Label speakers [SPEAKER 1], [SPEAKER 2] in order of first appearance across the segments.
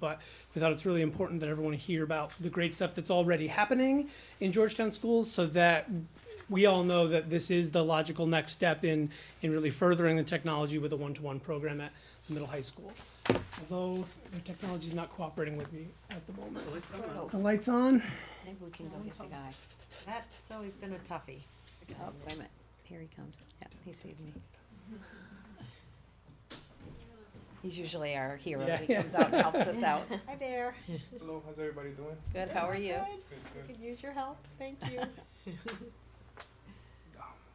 [SPEAKER 1] But we thought it's really important that everyone hear about the great stuff that's already happening in Georgetown schools so that we all know that this is the logical next step in, in really furthering the technology with a one-to-one program at the middle high school. Although the technology's not cooperating with me at the moment.
[SPEAKER 2] Oh,
[SPEAKER 1] The light's on?
[SPEAKER 2] Maybe we can go get the guy.
[SPEAKER 3] That's always been a toughie.
[SPEAKER 2] Oh, wait a minute, here he comes. Yeah, he sees me. He's usually our hero.
[SPEAKER 1] Yeah,
[SPEAKER 2] He
[SPEAKER 1] yeah.
[SPEAKER 2] comes out and helps us out.
[SPEAKER 3] Hi there.
[SPEAKER 4] Hello, how's everybody doing?
[SPEAKER 2] Good, how are you?
[SPEAKER 4] Good, good.
[SPEAKER 3] Could use your help, thank you.
[SPEAKER 4] Um, were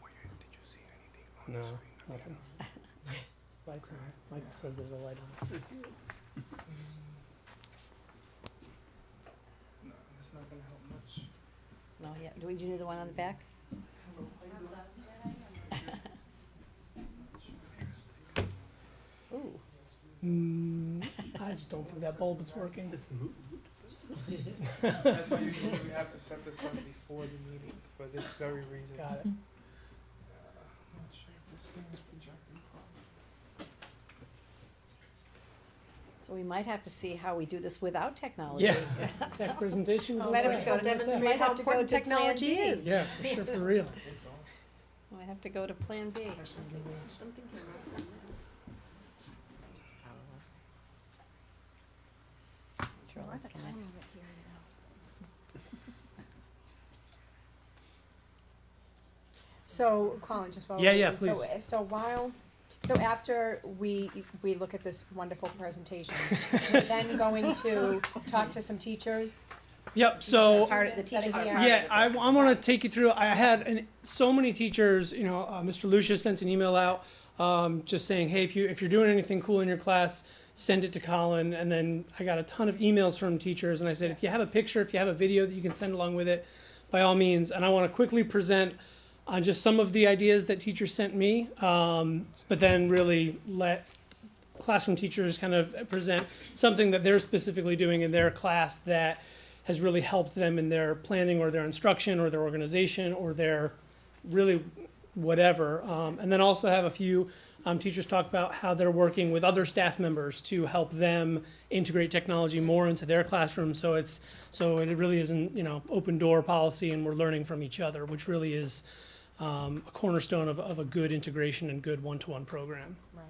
[SPEAKER 4] you, did you see anything on
[SPEAKER 1] No,
[SPEAKER 4] the screen?
[SPEAKER 1] nothing. Light's on. Michael says there's a light on.
[SPEAKER 4] No, that's not gonna help much.
[SPEAKER 2] No, yeah, do we, do you do the one on the back? Ooh,
[SPEAKER 1] Mm, I just don't think that bulb is working.
[SPEAKER 4] That's why usually we have to set this up before the meeting, for this very reason.
[SPEAKER 1] Got it.
[SPEAKER 4] Uh, I'm not sure if this thing is projecting properly.
[SPEAKER 2] so we might have to see how we do this without technology.
[SPEAKER 1] Yeah. Tech presentation. with a
[SPEAKER 3] Let
[SPEAKER 2] Madam
[SPEAKER 1] light.
[SPEAKER 3] us go
[SPEAKER 2] Secretary, we
[SPEAKER 3] demonstrate
[SPEAKER 2] Oh, might
[SPEAKER 3] how
[SPEAKER 2] have to go
[SPEAKER 3] important
[SPEAKER 2] to Plan
[SPEAKER 3] technology
[SPEAKER 2] B.
[SPEAKER 3] is.
[SPEAKER 1] Yeah, for sure, for real.
[SPEAKER 4] It's on.
[SPEAKER 2] I have to go to Plan B.
[SPEAKER 4] Actually, give me a second.
[SPEAKER 2] Control is connect.
[SPEAKER 5] So, Colin, just while.
[SPEAKER 1] Yeah,
[SPEAKER 5] we-
[SPEAKER 1] yeah,
[SPEAKER 5] so-
[SPEAKER 1] please.
[SPEAKER 5] So while, so after we, we look at this wonderful presentation, we're then going to talk to some teachers.
[SPEAKER 1] Yep, so.
[SPEAKER 5] Just hard-
[SPEAKER 2] The
[SPEAKER 5] Setting
[SPEAKER 2] teachers
[SPEAKER 5] the
[SPEAKER 2] are
[SPEAKER 5] hour.
[SPEAKER 2] part
[SPEAKER 1] Yeah,
[SPEAKER 2] of
[SPEAKER 1] I,
[SPEAKER 2] this.
[SPEAKER 1] want to take you through. I had an, so many teachers. You know, uh, Mr. Lucia sent an email out um, just saying, "Hey, if you if you're doing anything cool in your class, send it to Colin." And then I got a ton of emails from teachers, and I said, "If you have a picture, if you have a video that you can send along with it, by all means." And I want to quickly present on just some of the ideas that teachers sent me, um, but then really let classroom teachers kind of present something that they're specifically doing in their class that has really helped them in their planning or their instruction or their organization or their really whatever. Um, and then also have a few um, teachers talk about how they're working with other staff members to help them integrate technology more into their classroom. So it's so it really isn't you know open door policy, and we're learning from each other, which really is um, a cornerstone of, of a good integration and good one-to-one program.
[SPEAKER 5] Right.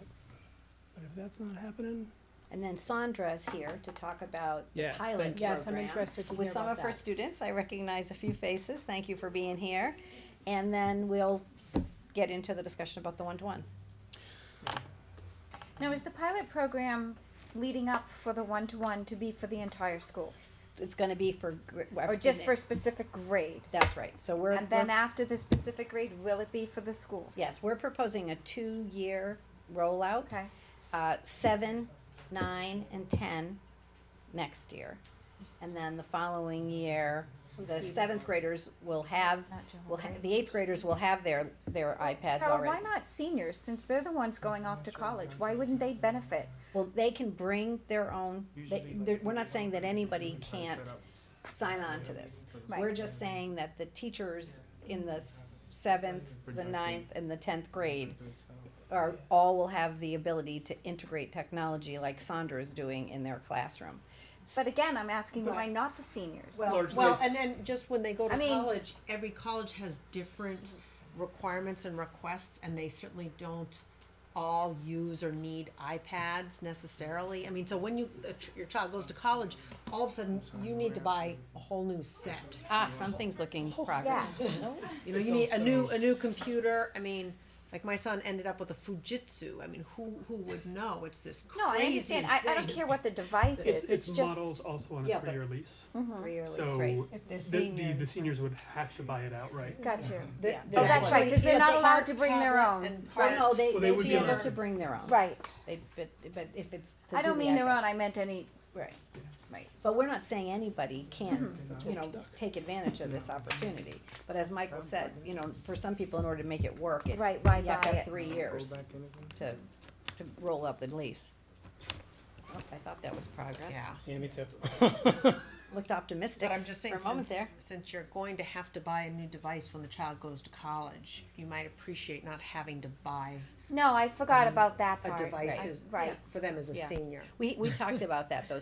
[SPEAKER 1] But if that's not happening,
[SPEAKER 2] And then Sandra's here to talk about the
[SPEAKER 1] Yes,
[SPEAKER 2] pilot
[SPEAKER 1] thank
[SPEAKER 2] program.
[SPEAKER 1] you.
[SPEAKER 5] Yes, I'm interested to hear
[SPEAKER 2] With some
[SPEAKER 5] about
[SPEAKER 2] of her
[SPEAKER 5] that.
[SPEAKER 2] students, I recognize a few faces, thank you for being here. And then we'll get into the discussion about the one-to-one.
[SPEAKER 6] Now, is the pilot program leading up for the one-to-one to be for the entire school?
[SPEAKER 2] It's gonna be for. gr-
[SPEAKER 6] Or just for a specific grade?
[SPEAKER 2] That's right, so we're,
[SPEAKER 6] And then
[SPEAKER 2] we're-
[SPEAKER 6] after the specific grade, will it be for the school?
[SPEAKER 2] yes, we're proposing a two-year rollout.
[SPEAKER 6] Okay,
[SPEAKER 2] Uh, seven, nine, and ten next year. And then the following year, the seventh graders will have,
[SPEAKER 6] not Johanna.
[SPEAKER 2] will ha- the eighth graders will have their, their iPads
[SPEAKER 6] Carol,
[SPEAKER 2] already.
[SPEAKER 6] why not seniors, since they're the ones going off to college? Why wouldn't they benefit?
[SPEAKER 2] Well, they can bring their own, they,
[SPEAKER 4] Usually,
[SPEAKER 2] they're-
[SPEAKER 4] like,
[SPEAKER 2] we're not saying that anybody
[SPEAKER 4] Try to
[SPEAKER 2] can't
[SPEAKER 4] set up.
[SPEAKER 2] sign on to this.
[SPEAKER 6] Right.
[SPEAKER 2] We're just saying that the teachers in the s- seventh, the ninth, and the tenth grade are, all will have the ability to integrate technology like Sandra is doing in their classroom.
[SPEAKER 6] But again, I'm asking why
[SPEAKER 3] Right.
[SPEAKER 6] not the seniors?
[SPEAKER 3] Well, well, and then just when they go to
[SPEAKER 6] I mean- Mm.
[SPEAKER 3] college, every college has different requirements and requests, and they certainly don't all use or need iPads necessarily. I mean, so when you, the ch- your child goes to college, all of a sudden, you need to buy a whole new set. Oh,
[SPEAKER 2] Ah, something's looking progress.
[SPEAKER 6] Yeah,
[SPEAKER 3] You know, you need a new, a new computer, I mean, like my son ended up with a Fujitsu, I mean, who, who would know? It's this crazy
[SPEAKER 6] no, I understand, I, I don't
[SPEAKER 3] thing.
[SPEAKER 6] care what the device
[SPEAKER 7] It's,
[SPEAKER 6] is, it's
[SPEAKER 7] it's
[SPEAKER 6] just, Mm-hmm.
[SPEAKER 7] models also on
[SPEAKER 3] Yeah,
[SPEAKER 7] a
[SPEAKER 3] but-
[SPEAKER 7] three-year lease.
[SPEAKER 2] Three-year lease,
[SPEAKER 7] So
[SPEAKER 2] right.
[SPEAKER 5] If
[SPEAKER 7] the,
[SPEAKER 5] they're
[SPEAKER 7] the, the
[SPEAKER 5] seniors.
[SPEAKER 7] seniors would have to buy it outright.
[SPEAKER 6] got you.
[SPEAKER 3] Th-
[SPEAKER 2] Oh, that's
[SPEAKER 3] why-
[SPEAKER 6] right, 'cause they're
[SPEAKER 3] yeah,
[SPEAKER 6] not
[SPEAKER 3] they
[SPEAKER 6] allowed
[SPEAKER 3] have
[SPEAKER 6] to bring their
[SPEAKER 3] tablet
[SPEAKER 6] own.
[SPEAKER 3] and
[SPEAKER 2] Well, no,
[SPEAKER 3] part-
[SPEAKER 2] they,
[SPEAKER 7] Well, they
[SPEAKER 2] they'd
[SPEAKER 7] would
[SPEAKER 2] be
[SPEAKER 7] be
[SPEAKER 2] able
[SPEAKER 7] allowed.
[SPEAKER 2] to bring their own.
[SPEAKER 6] Right,
[SPEAKER 2] They, but, but if it's. to
[SPEAKER 6] I
[SPEAKER 2] do
[SPEAKER 6] don't
[SPEAKER 2] the E
[SPEAKER 6] mean their
[SPEAKER 2] iPad.
[SPEAKER 6] own, I meant any,
[SPEAKER 2] Right.
[SPEAKER 6] right.
[SPEAKER 2] But we're not saying anybody can,
[SPEAKER 1] That's
[SPEAKER 2] you
[SPEAKER 1] where
[SPEAKER 2] know,
[SPEAKER 1] we're stuck.
[SPEAKER 2] take advantage of this opportunity. But as Michael said, you know, for some people, in order to make it work, it,
[SPEAKER 6] Right,
[SPEAKER 2] you
[SPEAKER 6] why
[SPEAKER 2] have to have
[SPEAKER 6] buy it?
[SPEAKER 2] three years to, to roll up the lease. Oh, I thought that was progress.
[SPEAKER 3] Yeah.
[SPEAKER 1] yeah, me too.
[SPEAKER 2] Looked optimistic
[SPEAKER 3] But I'm just
[SPEAKER 2] for
[SPEAKER 3] saying,
[SPEAKER 2] a moment
[SPEAKER 3] since,
[SPEAKER 2] there.
[SPEAKER 3] since you're going to have to buy a new device when the child goes to college, you might appreciate not having to buy
[SPEAKER 6] No, I forgot about that
[SPEAKER 2] Um,
[SPEAKER 3] a
[SPEAKER 6] part.
[SPEAKER 3] device
[SPEAKER 6] Right,
[SPEAKER 3] as-
[SPEAKER 6] Right.
[SPEAKER 3] for them as a
[SPEAKER 2] Yeah.
[SPEAKER 3] senior.
[SPEAKER 2] We, we talked about that, though,